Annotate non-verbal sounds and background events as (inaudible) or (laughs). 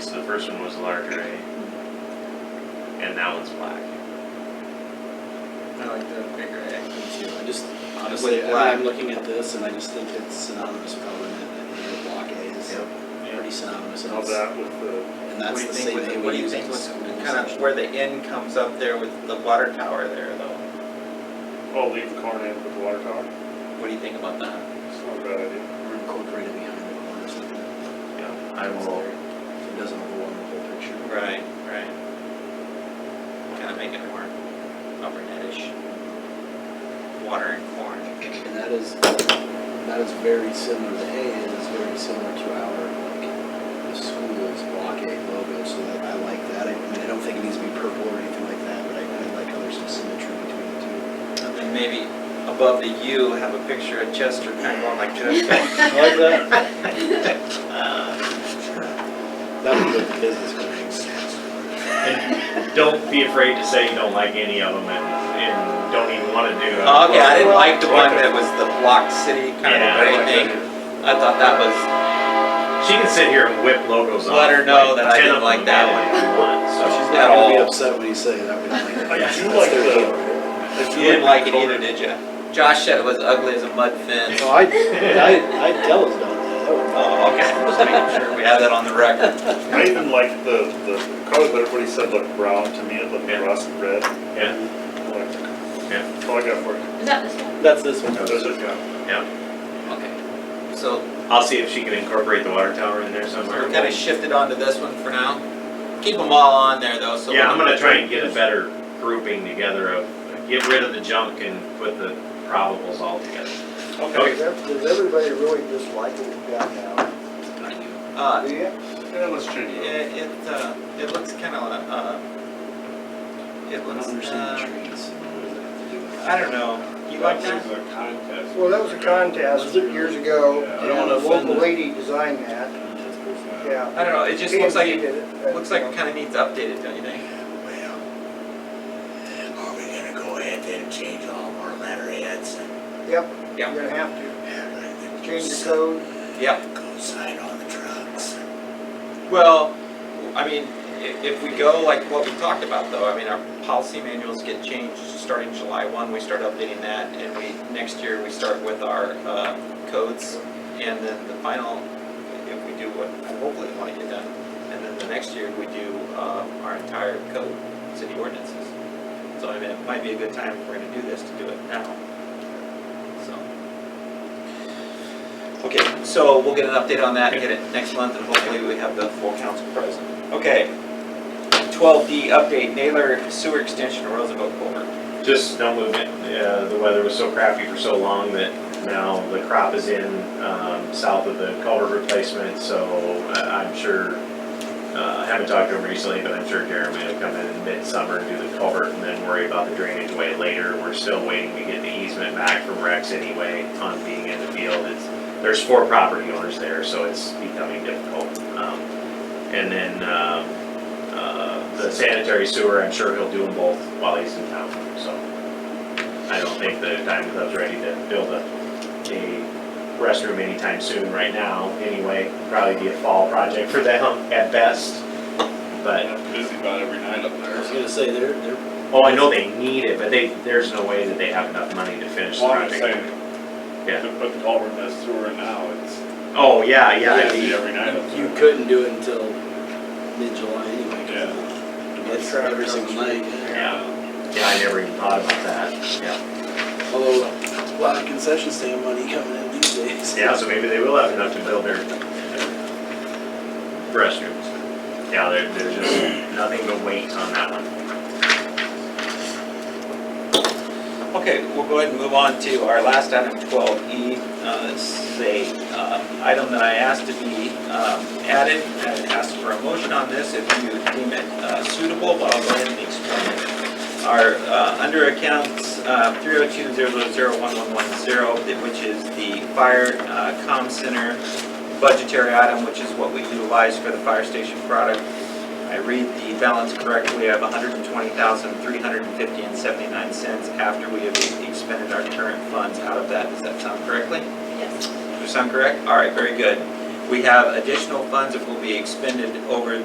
first one was dark gray, and that one's black. I like the bigger egg. too. I just, honestly, I mean, black. I'm looking at this and I just think it's synonymous with Covenant and the block A is pretty synonymous. and How it's- about with the, And What do that's you the think same with, the- thing what do we you use think in with school. kind of where the end comes up there with the water tower there though? oh, leave the corn in with the water tower? What do you think about that? It's not a bad idea. We're incorporated behind the corner so that Yeah, I will- it doesn't overwhelm the whole picture. Right, right. Kind of make it more upper netish. Water and corn. And that is, that is very similar to A, and it's very similar to our, like, the school's block A logo, so that I like that. I mean, I don't think it needs to be purple or anything like that, but I, I like how there's some symmetry between the two. And then maybe above the U, have a picture of Chester kind of going like this. I like that. uh, That would be the business connection. And don't be afraid to say you don't like any of them and, and don't even wanna do it. Oh, Okay, I didn't like the one Like that was the block city kind of Yeah, gray thing. like I thought that was, She can sit here and whip logos off. Let her know like, that I 10 didn't of like them that badly if you want, so. She's At not gonna be all. upset when you say that, we don't like that. I That's do Oh, like their the- deal, right? you didn't like it either, did you? Josh said it was ugly as a mud fence. (laughs) No, I, I, I tell us about that, that would. Oh, okay, (laughs) just making sure we have that on the record. I even liked the, the color that everybody said looked brown, to me it looked Yeah. rust red. Yeah, Like, yeah, That's all I got for you. Is that this one? That's this one. That's it, yeah. yeah. (laughs) Okay, so I'll see if she can incorporate the water tower in there somewhere. we're gonna shift it onto this one for now. Keep them all on there though, so. Yeah, I'm gonna try and get a better grouping together of, get rid of the junk and put the probables all together. Okay. Does everybody really dislike what we've got now? Uh, Do you? Yeah, let's it, change it. it, uh, it looks kinda, uh, it I don't looks, understand the uh, trees. What does that have to do with I don't know. You like that? Well, that was a contest years ago, Yeah, I don't and wanna a offend local the- lady designed that, it? yeah. I don't know, it just looks like, P&G it did it, but, looks like you it know. kinda needs updated, don't you think? Well, are we gonna go ahead then and change all of our letterheads and? Yep, Yeah. you're gonna have to and change the code. Yep. Go sign on the trucks. Well, I mean, if, if we go like what we talked about though, I mean, our policy manuals get changed starting July one, we start updating that and we, next year, we start with our, uh, codes. And then the final, if we do what I hopefully want to get done, and then the next year, we do, um, our entire code, city ordinances. So I mean, it might be a good time if we're gonna do this to do it now, so. Okay, so we'll get an update on that, get it next month, and hopefully we have the full council present. Okay. Twelve D update, Naylor Sewer Extension, Roosevelt Boulevard. Just no movement. Uh, the weather was so crappy for so long that now the crop is in, um, south of the culvert replacement, so uh, I'm sure, uh, I haven't talked to him recently, but I'm sure Jeremy will come in midsummer and do the culvert and then worry about the drainage way later. We're still waiting to get the easement back from Rex anyway on being in the field. It's, there's four property owners there, so it's becoming difficult. Um, And then, um, uh, the sanitary sewer, I'm sure he'll do them both while he's in town, so. I don't think the Diamond Club's ready to build a, a restroom anytime soon right now, anyway. Probably be a fall project for them at best, but, Busy about every night up I was gonna say, they're, they're, oh, I know they need it, but they, there's no way that they have enough money to finish the Well, I'm just project. saying, Yeah. to put the culvert in that sewer now, it's Oh, yeah, yeah, it'd busy be- every night up you there. couldn't do it until mid-July anyway. 'cause Yeah. It's every single night. yeah, yeah, I never even thought about that, yeah. Although, a lot of concession stand money coming in these days. Yeah, so maybe they will have enough to build their restrooms. Yeah, there, there's just nothing but wait on that one. Okay, we'll go ahead and move on to our last item, twelve E. Uh, this is a, uh, item that I asked to be, um, added, I asked for a motion on this if you deem it uh, suitable, but I'll go ahead and explain it. Our, uh, under accounts, uh, three oh two zero zero zero one one one zero, which is the fire, uh, comm center budgetary item, which is what we utilize for the fire station product. I read the balance correctly, I have hundred and twenty thousand, three hundred and fifty and seventy-nine cents after we have expended our current funds out of that, does that sound correctly? Yes. Does that sound correct? All right, very good. We have additional funds that will be expended over